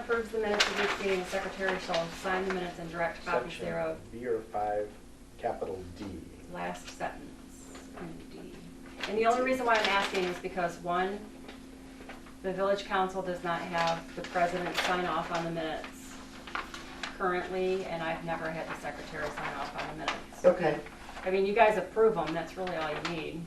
approves the minutes of each meeting, the secretary shall sign the minutes and direct copies Section thereof. B or five, capital D. Last sentence, indeed. And the only reason why I'm asking is because, one, the village council does not have the president sign off on the minutes currently, and I've never had the secretary sign off on the minutes. Okay. I mean, you guys approve them, that's really all you need.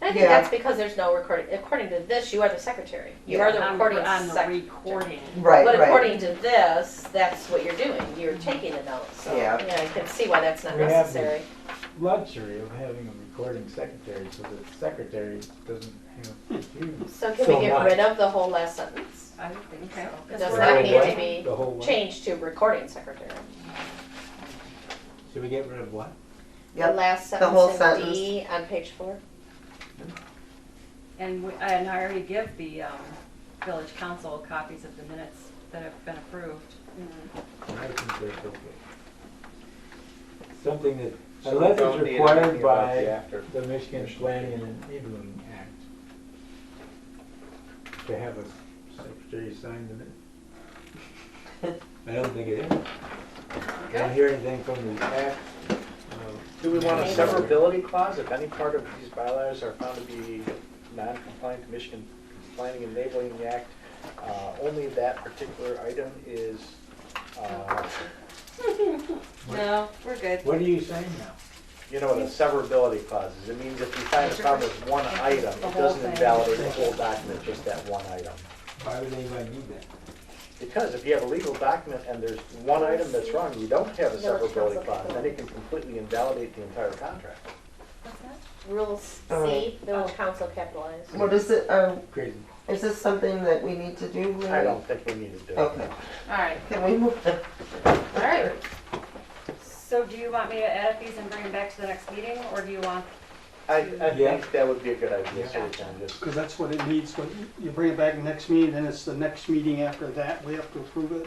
And I think Yeah. that's because there's no recording. According to this, you are the secretary. You are the On recording On the secretary. recording. Right, But right. according to this, that's what you're doing. You're taking a note, so, Yeah. yeah, I can see why that's not We have necessary. luxury of having a recording secretary, so the secretary doesn't have to do So can So we get much. rid of the whole last sentence? I would think so. So It Because does we're not already need to doing- be the whole one. changed to recording secretary. Should we get rid of what? The Yep. last The whole sentence in D on page four. And, we- and I already give the um, village council copies of the minutes that have been approved. I think that's okay. Something that, So we unless don't it's need anything required about the by after. the Michigan Planning and Enabling Act to have a secretary sign the minutes. I don't think it is. I don't hear anything from the act. uh, Do we want a Maybe. severability clause if any part of these bylaws are found to be non-compliant to Michigan Planning and Enabling Act? Uh, only that particular item is, uh, No, we're good. What are you saying now? you know what a severability clause is? It means if we find a problem with one item, The it whole doesn't thing. invalidate the whole document, just that one item. Why would anybody need that? Because if you have a legal document and there's one item that's wrong, you don't have a Village council severability clause, then it can completely invalidate the entire contract. What's that? Rules Oh. C, village council capitalized. What is it, um, Crazy. is this something that we need to do? Lily? I don't think we need to do it. Okay, All right, can we move on? all right. So do you want me to edit these and bring them back to the next meeting, or do you want, I, I Yeah. think that would be a good idea, so we can just Because that's what it needs, when you bring it back next meeting, then it's the next meeting after that, we have to approve it.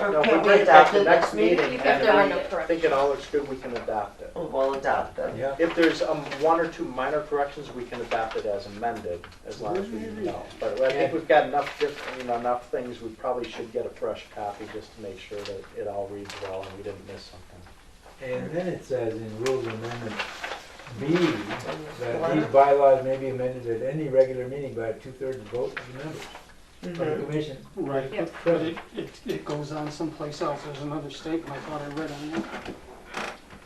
No, Or if we can we bring it back adopt to it next meeting, You can do and no we think it correction. all looks good, we can adopt it. Oh, We'll adopt them. Yeah. If there's um, one or two minor corrections, we can adopt it as amended, as long as we know. But I think Yeah. we've got enough, diff- you know, enough things, we probably should get a fresh copy just to make sure that it all reads well and we didn't miss something. And then it says in Rules Amendment B, that these bylaws may be amended at any regular meeting by a two-thirds vote of the members Mm-hmm. of the Mhm. commission. Right. Yep. But it, it, it goes on someplace else, there's another statement I thought I read on that.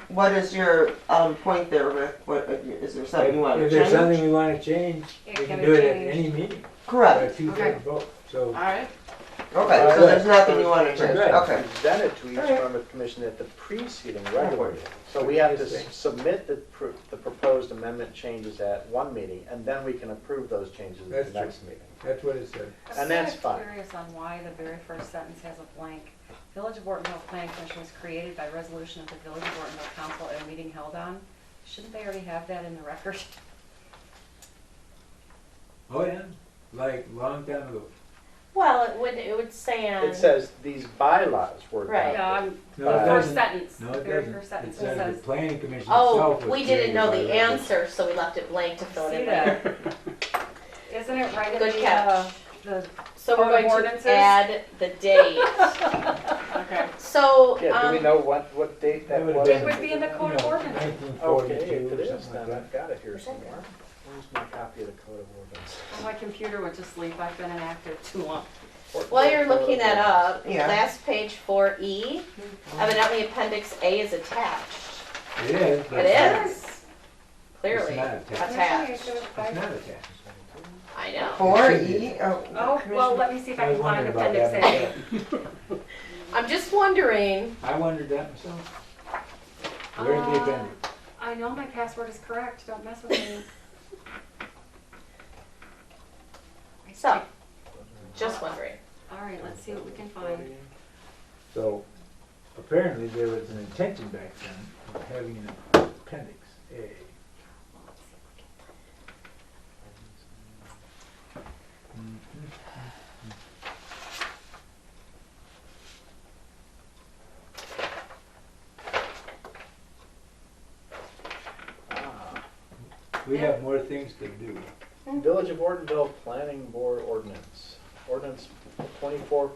What is your, um, point there, Rick? What, uh, is there something you want to If there's change? something we wanna change, we It can can do it at be any meeting by a Correct, two-thirds vote, so. right. okay, so there's nothing you want to change, Good. okay. Presented to each Alright. member of the commission at the preceding regular meeting. So we have to s- submit the, pr- the proposed amendment changes at one meeting, and then we can approve those changes at That's the true. next meeting. That's what it says. And that's I'm fine. kinda curious on why the very first sentence has a blank. Village of Ortonville Planning Commission was created by resolution of the Village of Ortonville Council at a meeting held on. Shouldn't they already have that in the record? Oh, yeah, like, long time ago. Well, it would, it would say on. It says these bylaws were Right. adopted. Yeah, I'm- No, it Uh, first doesn't. sentence, No, the it very first doesn't. It sentence says says, the planning commission itself Oh, was we didn't created know by the resolution. answer, so we left it blank to fill it see in later. that? Isn't it right in Good the, catch. uh, the, So Code we're of going ordinances? to add the date. okay. So, Yeah, do we um, know what, what date that That would've was? been- It would be in the code of No, ordinance. 1942 Okay, if it or is, something like then that. I've got it here somewhere. Where's my copy of the code of ordinance? oh, My computer went to sleep, I've been inactive too long. while you're uh, looking that up, Yeah. last page four E, evidently appendix A is attached. It is. but It it's is, clearly not attached. attached. not- It's not attached. I know. Four E, oh. Oh, well, let me see if I I was can find wondering about appendix that. A. myself. I'm just wondering, I wondered that myself. Where's the Uh, appendix? I know my password is correct, don't mess with me. so, just wondering. All right, let's see what we can find. So apparently there was an intention back then of having an appendix A. Ah, We have more things to do. Village of Ortonville Planning Board Ordinance, ordinance twenty-four